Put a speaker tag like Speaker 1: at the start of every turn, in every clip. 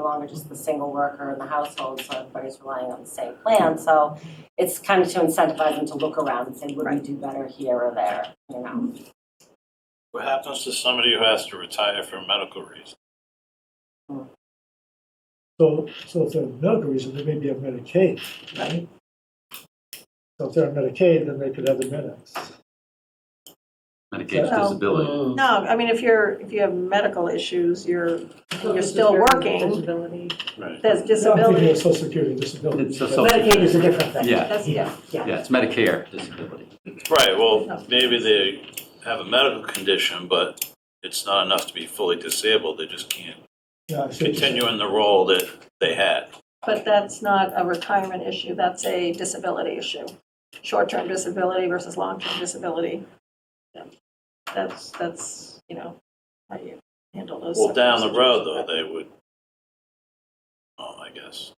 Speaker 1: longer just the single worker in the household, so everybody's relying on the same plan. So it's kind of to incentivize them to look around and say, would we do better here or there, you know?
Speaker 2: What happens to somebody who has to retire for medical reasons?
Speaker 3: So, so if they're on medical reason, they may be on Medicaid, right? So if they're on Medicaid, then they could have the minutes.
Speaker 4: Medicaid
Speaker 5: Well-
Speaker 4: disability.
Speaker 5: No, I mean, if you're, if you have medical issues, you're, you're still working,
Speaker 2: Right.
Speaker 5: there's
Speaker 3: I'm thinking
Speaker 5: disability.
Speaker 3: of social security disability.
Speaker 4: It's a
Speaker 3: but-
Speaker 4: social-
Speaker 6: Medicaid is a different thing.
Speaker 4: Yeah,
Speaker 5: That's, yeah,
Speaker 4: yeah, it's Medicare disability.
Speaker 2: Right, well, maybe they have a medical condition, but it's not enough to be fully disabled. They just can't
Speaker 3: Yeah, I see what you're saying.
Speaker 2: continue in the role that they had.
Speaker 5: but that's not a retirement issue, that's a disability issue. Short-term disability versus long-term disability. Yeah. That's, that's, you know, how you handle those.
Speaker 2: Well, down the road,
Speaker 5: situations.
Speaker 2: though, they would, well, I guess.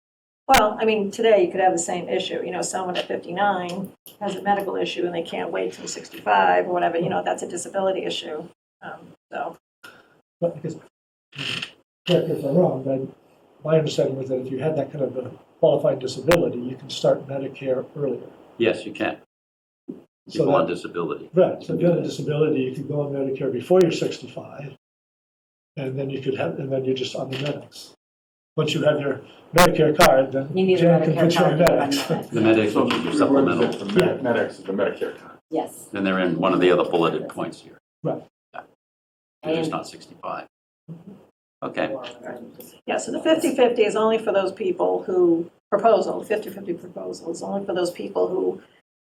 Speaker 5: Well, I mean, today you could have the same issue, you know, someone at 59 has a medical issue and they can't wait till 65 or whatever, you know, that's a disability issue. Um, So,
Speaker 3: But I guess, correct me if I'm wrong, but my understanding was that if you had that kind of a qualifying disability, you can start Medicare earlier.
Speaker 4: Yes, you can.
Speaker 3: So
Speaker 4: People on
Speaker 3: that,
Speaker 4: disability.
Speaker 3: right, so if you had a disability, you could go on Medicare before you're sixty-five, and then you could have, and then you're just on the medics. Once you have your Medicare card, then
Speaker 1: You need a
Speaker 3: Jan can
Speaker 1: Medicare
Speaker 3: put you
Speaker 1: card.
Speaker 3: on
Speaker 1: to run
Speaker 3: medics.
Speaker 1: that.
Speaker 4: The Medicaid is your supplemental,
Speaker 7: The med- medics is the Medicare time.
Speaker 1: Yes,
Speaker 4: and they're in one of the other bulleted points here.
Speaker 3: Right.
Speaker 4: Yeah. They're just not 65. Okay,
Speaker 5: yeah, so the 50/50 is only for those people who, proposal, 50/50 proposal is only for those people who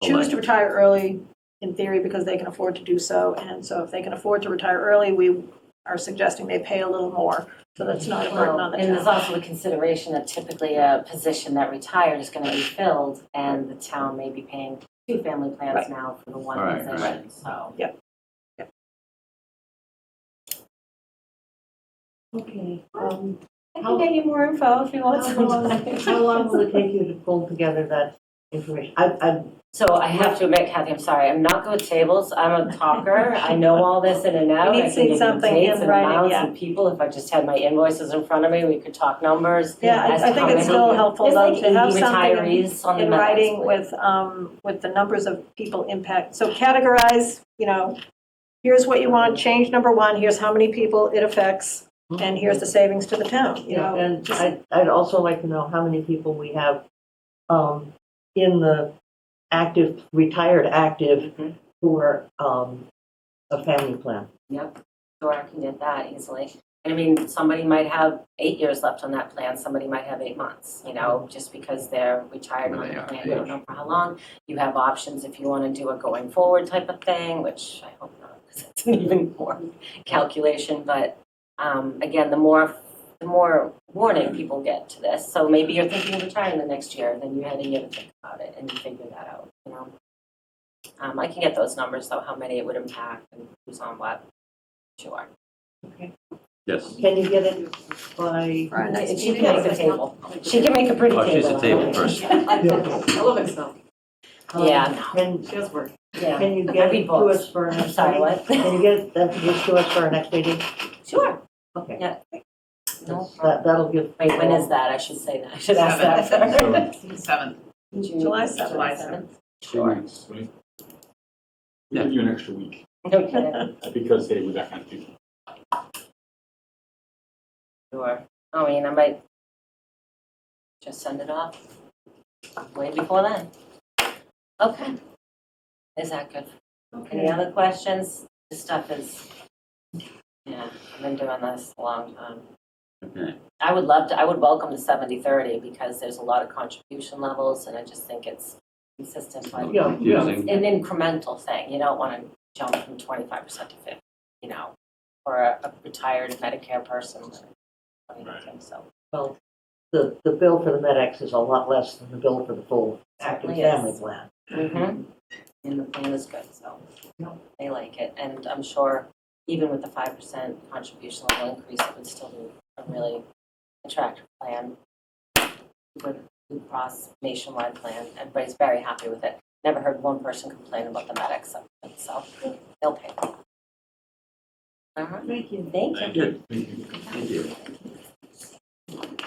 Speaker 5: choose to retire early, in theory, because they can afford to do so. And so if they can afford to retire early, we are suggesting they pay a little more, so that's not a burden on
Speaker 1: Well,
Speaker 5: the
Speaker 1: and there's
Speaker 5: town.
Speaker 1: also a consideration that typically a position that retired is gonna be filled, and the town may be paying two family plans
Speaker 5: Right.
Speaker 1: now for the
Speaker 4: All
Speaker 1: one
Speaker 4: right,
Speaker 1: position, so.
Speaker 5: Yep. Yep.
Speaker 1: Okay,
Speaker 6: Um,
Speaker 1: I
Speaker 6: can
Speaker 1: get you more info if you
Speaker 6: want some. How long will it take you to pull together that information? I, I,
Speaker 1: So I have to admit, Kathy, I'm sorry, I'm not good with tables, I'm a talker, I know all this in and out.
Speaker 5: You need
Speaker 1: I
Speaker 5: to
Speaker 1: can
Speaker 5: see
Speaker 1: give you
Speaker 5: something
Speaker 1: dates
Speaker 5: in
Speaker 1: and
Speaker 5: writing,
Speaker 1: amounts
Speaker 5: yeah.
Speaker 1: and people, if I just had my invoices in front of me, we could talk numbers.
Speaker 5: Yeah,
Speaker 1: as
Speaker 5: I- I
Speaker 1: to how
Speaker 5: think it's
Speaker 1: many-
Speaker 5: still helpful
Speaker 1: There's
Speaker 5: though
Speaker 1: like
Speaker 5: to have
Speaker 1: 80
Speaker 5: something in
Speaker 1: retirees on the
Speaker 5: in
Speaker 1: matters
Speaker 5: writing
Speaker 1: list.
Speaker 5: with, um, with the numbers of people impact. So categorize, you know, here's what you want, change number one, here's how many people it affects, and here's the savings to the town, you
Speaker 6: you know,
Speaker 5: know?
Speaker 6: and I, I'd also like to know how many people we have, um, in the active, retired active
Speaker 8: Mm-hmm.
Speaker 1: Mhm.
Speaker 6: who are, um, a family plan.
Speaker 1: Yep, sure, I can get that easily. And I mean, somebody might have eight years left on that plan, somebody might have eight months, you know, just because they're retired
Speaker 4: Where
Speaker 1: on
Speaker 4: they
Speaker 1: the
Speaker 4: are,
Speaker 1: plan, you don't know for how long. You have options if you want to do a going forward type of thing, which I hope not, because it's an even more calculation, but um, again, the more, the more warning people get to this, so maybe you're thinking of retiring the next year, then you had a year to think about it and figure that out, you know? Um, I can get those numbers, though, how many it would impact and who's on what. Sure.
Speaker 4: yes.
Speaker 6: Can you get it by,
Speaker 8: For our next
Speaker 1: And she
Speaker 8: meeting,
Speaker 1: can make
Speaker 8: I'll
Speaker 1: a
Speaker 8: say no.
Speaker 1: table.
Speaker 8: I'll make a
Speaker 1: She can make a pretty
Speaker 4: Oh,
Speaker 1: table.
Speaker 4: she's a table person.
Speaker 3: Yeah.
Speaker 8: I love Excel.
Speaker 6: um,
Speaker 1: Yeah.
Speaker 6: Can,
Speaker 8: She does work.
Speaker 1: Yeah,
Speaker 6: can you
Speaker 1: I
Speaker 6: get
Speaker 1: read
Speaker 6: it to
Speaker 1: books.
Speaker 6: us for our
Speaker 1: I'm
Speaker 6: next
Speaker 1: sorry,
Speaker 6: meeting?
Speaker 1: what?
Speaker 6: Can you get that just to us for our next meeting?
Speaker 1: Sure.
Speaker 6: Okay.
Speaker 1: Yeah. No problem.
Speaker 6: That, that'll give.
Speaker 1: Wait, when is that? I should say that, I should ask that first.
Speaker 8: Seven. Seven.
Speaker 5: July
Speaker 8: July
Speaker 1: Sure.
Speaker 4: Yeah.
Speaker 7: Give you an extra week
Speaker 1: No kidding,
Speaker 7: because they were that kind of people.
Speaker 1: sure. I mean, I might just send it off way before then. Okay. Is that good? Any other questions? This stuff is, yeah, I've been doing this a long time.
Speaker 4: Okay.
Speaker 1: I would love to, I would welcome the seventy thirty because there's a lot of contribution levels and I just think it's consistent,
Speaker 4: A
Speaker 1: but
Speaker 4: little confusing.
Speaker 1: an incremental thing. You don't want to jump from twenty-five percent to fifty, you know, for a a retired Medicare person. I mean, I think So,
Speaker 6: Well, the, the bill for the MedX is a lot less than the bill for the full active
Speaker 1: Certainly is.
Speaker 6: family plan.
Speaker 1: Mhm. and the plan is good, so they like it. And I'm sure even with the five percent contribution level increase, it would still be a really attractive plan. Good Blue Cross nationwide plan. Everybody's very happy with it. Never heard one person complain about the medics, so they'll pay. All right.
Speaker 6: Thank you.
Speaker 1: Thank you.
Speaker 2: Thank you.
Speaker 4: Thank you.